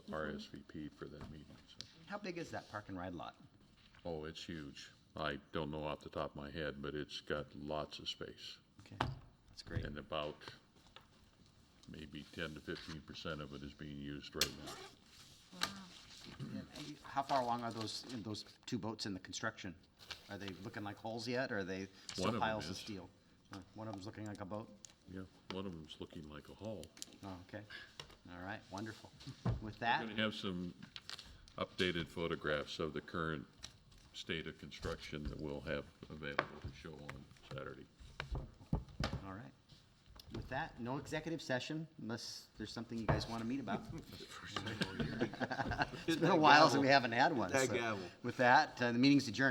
Mm-hmm. RSVP'd for that meeting, so. How big is that park and ride lot? Oh, it's huge. I don't know off the top of my head, but it's got lots of space. Okay, that's great. And about maybe 10 to 15% of it is being used right now. And you- How far along are those, in those two boats in the construction? Are they looking like holes yet, or are they One still of 'em piles of is. steel? Uh, One of them's looking like a boat? Yeah, one of them's looking like a hall. Oh, okay. All right, wonderful. With that, I'm going to have some updated photographs of the current state of construction that we'll have available to show on Saturday. all right. With that, no executive session unless there's something you guys want to meet about. It's been a while since we haven't had one. That so gavel. With that, uh, the meeting's adjourned.